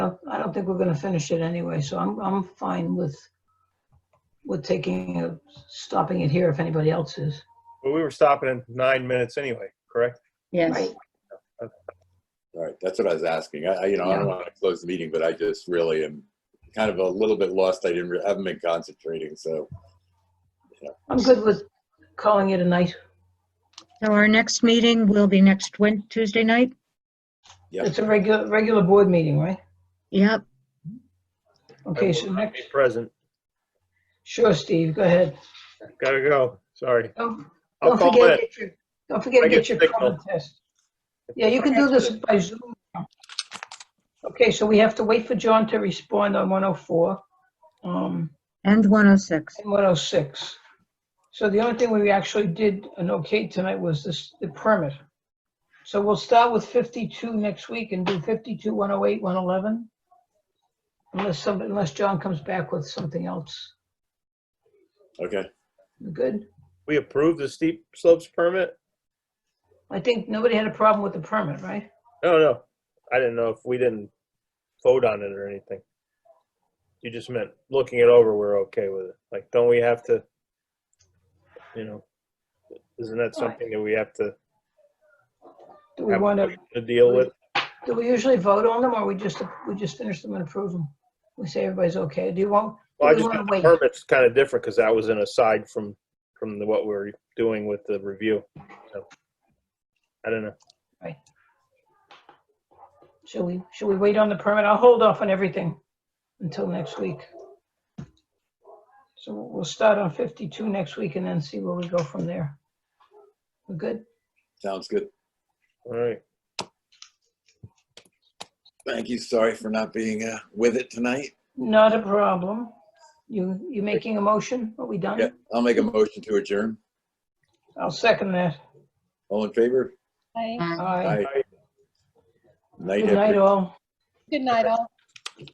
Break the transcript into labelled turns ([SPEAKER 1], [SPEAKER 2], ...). [SPEAKER 1] yeah, I don't think we're gonna finish it anyway, so I'm, I'm fine with, with taking, a- stopping it here if anybody else is.
[SPEAKER 2] Well, we were stopping in nine minutes anyway, correct?
[SPEAKER 3] Yes,
[SPEAKER 1] Right.
[SPEAKER 4] All right, that's what I was asking. I, I- you know, I don't
[SPEAKER 1] Yeah.
[SPEAKER 4] want to close the meeting, but I just really am kind of a little bit lost. I didn't, re- I haven't been concentrating, so.
[SPEAKER 1] I'm good with calling it a night.
[SPEAKER 3] so our next meeting will be next Wed, Tuesday night?
[SPEAKER 4] yeah.
[SPEAKER 1] It's a regular, regular board meeting, right?
[SPEAKER 3] Yep,
[SPEAKER 1] Okay,
[SPEAKER 2] I
[SPEAKER 1] so
[SPEAKER 2] will not
[SPEAKER 1] next,
[SPEAKER 2] be Present.
[SPEAKER 1] sure, Steve, go ahead.
[SPEAKER 2] Gotta go. Sorry.
[SPEAKER 1] Don't
[SPEAKER 2] I'll
[SPEAKER 1] don't
[SPEAKER 2] call
[SPEAKER 1] forget,
[SPEAKER 2] it.
[SPEAKER 1] get your- don't forget to
[SPEAKER 2] I get
[SPEAKER 1] get your
[SPEAKER 2] signal.
[SPEAKER 1] COVID test. Yeah, you can do this by Zoom. Okay, so we have to wait for John to respond on 104. Um,
[SPEAKER 3] and 106.
[SPEAKER 1] And 106. So the only thing we actually did an okay tonight was this, the permit. So we'll start with 52 next week and do oh 52, 108, 111. Unless some, unless John comes back with something else.
[SPEAKER 4] Okay.
[SPEAKER 1] We Good?
[SPEAKER 2] We approved the steep slopes permit?
[SPEAKER 1] I think nobody had a problem with the permit, right?
[SPEAKER 2] No, no. I didn't know if we didn't vote on it or anything. You just meant looking it over, we're okay with it. Like, don't we have to, you know, isn't that something that we have to
[SPEAKER 1] Do we
[SPEAKER 2] have
[SPEAKER 1] want to,
[SPEAKER 2] to deal with?
[SPEAKER 1] do we usually vote on them or we just, we just finish them and approve them? We say everybody's okay. Do you want,
[SPEAKER 2] Well, I
[SPEAKER 1] we
[SPEAKER 2] just
[SPEAKER 1] wanna
[SPEAKER 2] think
[SPEAKER 1] wait.
[SPEAKER 2] the permit's kind of different because that was an aside from, from the- what we're doing with the review. So, I don't know.
[SPEAKER 1] should we, should we wait on the permit? I'll hold off on everything until next week. So we'll start on 52 next week and then see where we go from there. We're good?
[SPEAKER 4] Sounds good.
[SPEAKER 2] All right.
[SPEAKER 4] Thank you. Sorry for not being uh, with it tonight.
[SPEAKER 1] Not a problem. You, you making a motion? Are we
[SPEAKER 4] Yeah,
[SPEAKER 1] done?
[SPEAKER 4] I'll make a motion to adjourn.
[SPEAKER 1] I'll second that.
[SPEAKER 4] All in favor?
[SPEAKER 5] Hi.
[SPEAKER 3] Bye.
[SPEAKER 1] Aye.
[SPEAKER 4] Aye. Night,
[SPEAKER 1] Good night,
[SPEAKER 4] everyone.
[SPEAKER 1] all.
[SPEAKER 5] Good night, all.